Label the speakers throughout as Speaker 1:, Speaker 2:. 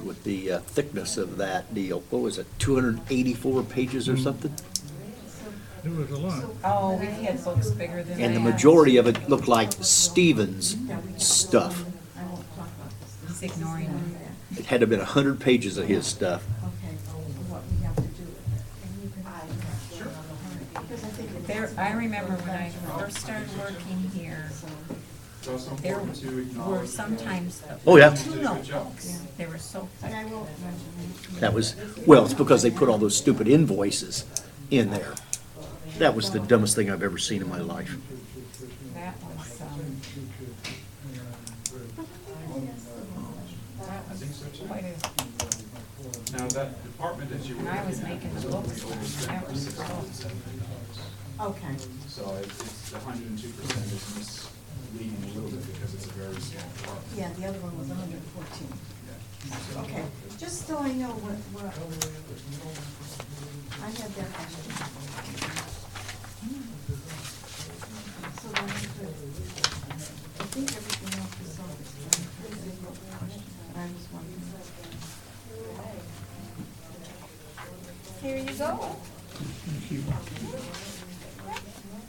Speaker 1: of the uh, thickness of that deal. What was it, 284 pages or something?
Speaker 2: It was a lot.
Speaker 3: Oh, we had books bigger than that.
Speaker 1: And the majority of it looked like Stevens stuff.
Speaker 3: He's ignoring me.
Speaker 1: It had to have been 100 pages of his stuff.
Speaker 3: There, I remember when I first started working here, there were sometimes.
Speaker 1: Oh, yeah.
Speaker 3: Two notebooks. They were so thick.
Speaker 1: That was, well, it's because they put all those stupid invoices in there. That was the dumbest thing I've ever seen in my life.
Speaker 3: That was, um, that was quite a,
Speaker 4: Now, that department that you were.
Speaker 3: when I was making the books, that was so.
Speaker 5: Okay.
Speaker 4: So it- it's, the hundred and two percent is misleading a little bit because it's a very small department.
Speaker 5: Yeah, the other one was hundred and fourteen. Okay, just so I know what, what. I had that question. So then, I think everything else is all explained. I was wondering.
Speaker 6: Here you go.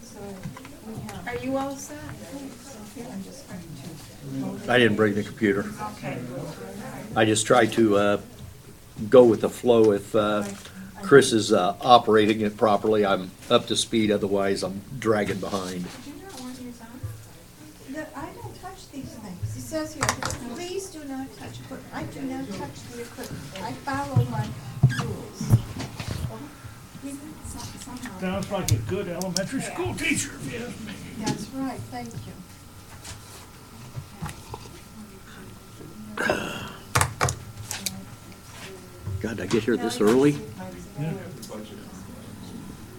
Speaker 5: So we have,
Speaker 6: Are you all set?
Speaker 5: so here, I'm just going to.
Speaker 1: I didn't bring the computer.
Speaker 6: Okay.
Speaker 1: I just tried to uh, go with the flow. If uh, Chris is uh, operating it properly, I'm up to speed, otherwise I'm dragging behind.
Speaker 6: Do you not want yours on?
Speaker 5: No, I don't touch these things. It says here, please do not touch equipment. I do not touch the equipment. I follow my rules. Isn't it some- Somehow,
Speaker 2: Sounds like a good elementary school teacher, if you ask me.
Speaker 5: that's right, thank you.
Speaker 1: God, did I get here this early?
Speaker 4: The budget on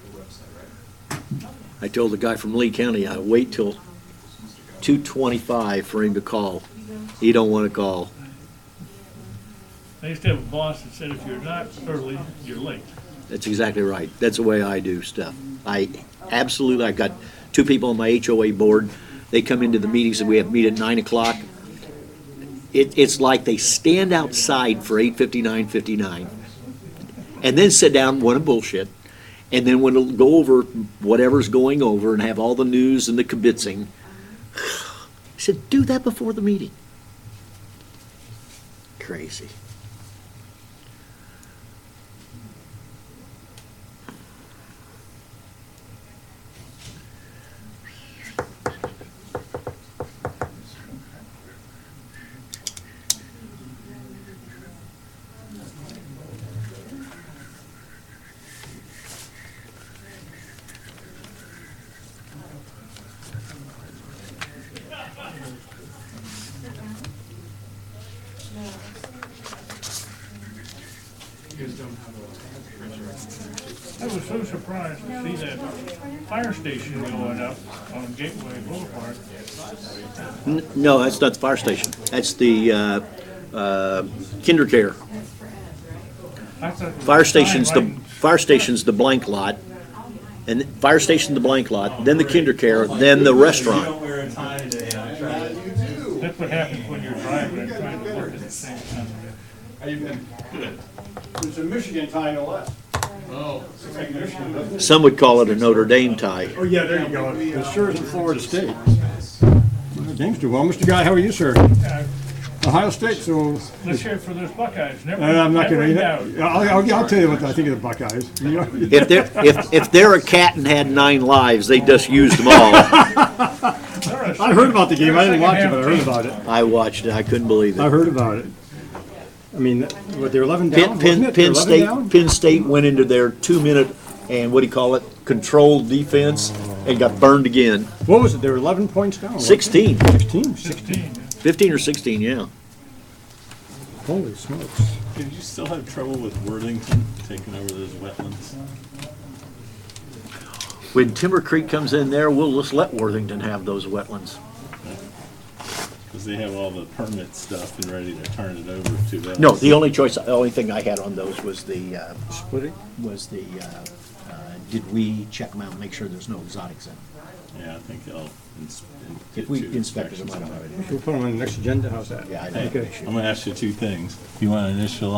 Speaker 4: the website, right?
Speaker 1: I told the guy from Lee County I wait till 2:25 for him to call. He don't want to call.
Speaker 2: I used to have a boss that said if you're not early, you're late.
Speaker 1: That's exactly right. That's the way I do stuff. I absolutely, I've got two people on my HOA board. They come into the meetings and we have meet at nine o'clock. It, it's like they stand outside for eight fifty-nine, fifty-nine, and then sit down, want to bullshit. And then when it'll go over whatever's going over and have all the news and the kibitzing. I said, do that before the meeting. Crazy.
Speaker 4: You guys don't have a printer.
Speaker 2: I was so surprised to see that fire station going up on Gateway Boulevard.
Speaker 1: N- No, that's not the fire station. That's the uh, uh, kinder care.
Speaker 2: I thought there was a
Speaker 1: Fire
Speaker 2: sign
Speaker 1: station's the,
Speaker 2: right in-
Speaker 1: fire station's the blank lot. And fire station, the blank lot, then the kinder care, then the restaurant.
Speaker 7: wear a tie today, I'm trying to.
Speaker 2: That's what happens when you're driving and trying to work at the same time.
Speaker 4: How you been? Good.
Speaker 7: It's a Michigan tie, no less. Oh.
Speaker 1: Some would call it a Notre Dame tie.
Speaker 7: Oh, yeah, there you go. It sure is in Florida State. James, well, Mr. Guy, how are you, sir?
Speaker 2: Uh,
Speaker 7: Ohio State, so,
Speaker 2: Let's hear it for those Buckeyes. Never,
Speaker 7: uh, I'm not
Speaker 2: never
Speaker 7: gonna,
Speaker 2: in doubt.
Speaker 7: I'll, I'll, I'll tell you what I think of the Buckeyes. You know?
Speaker 1: If they're, if, if they're a cat and had nine lives, they just used them all.
Speaker 2: They're a-
Speaker 7: I heard about the game, I didn't watch it, but
Speaker 2: Second
Speaker 7: I heard
Speaker 2: half
Speaker 7: about it.
Speaker 1: I watched it, I couldn't believe
Speaker 7: I
Speaker 1: it.
Speaker 7: heard about it. I mean, what, they're eleven
Speaker 1: Penn,
Speaker 7: down, wasn't
Speaker 1: Penn,
Speaker 7: it? They're
Speaker 1: Penn
Speaker 7: 11
Speaker 1: State,
Speaker 7: down?
Speaker 1: Penn State went into their two-minute, and what do you call it, controlled defense, and got burned again.
Speaker 7: What was it? They were eleven points down. wasn't it?
Speaker 1: 16,
Speaker 7: Sixteen? Six-
Speaker 2: 16.
Speaker 1: 15 or 16, yeah.
Speaker 7: Holy smokes.
Speaker 8: Did you still have trouble with Worthington taking over those wetlands?
Speaker 1: When Timber Creek comes in there, we'll just let Worthington have those wetlands.
Speaker 8: Because they have all the permit stuff and ready to turn it over to us.
Speaker 1: No, the only choice, the only thing I had on those was the, uh,
Speaker 7: Split it?
Speaker 1: was the, uh, uh, did we check them out and make sure there's no exotics in them?
Speaker 8: Yeah, I think I'll. ins- in-
Speaker 1: If
Speaker 8: get
Speaker 1: we
Speaker 8: you
Speaker 1: inspected them, I
Speaker 8: inspections
Speaker 1: don't have any.
Speaker 7: We'll put them on the next agenda, how's that?
Speaker 1: Yeah, I don't have an
Speaker 8: Hey,
Speaker 1: issue.
Speaker 8: I'm gonna ask you two things. You wanna initial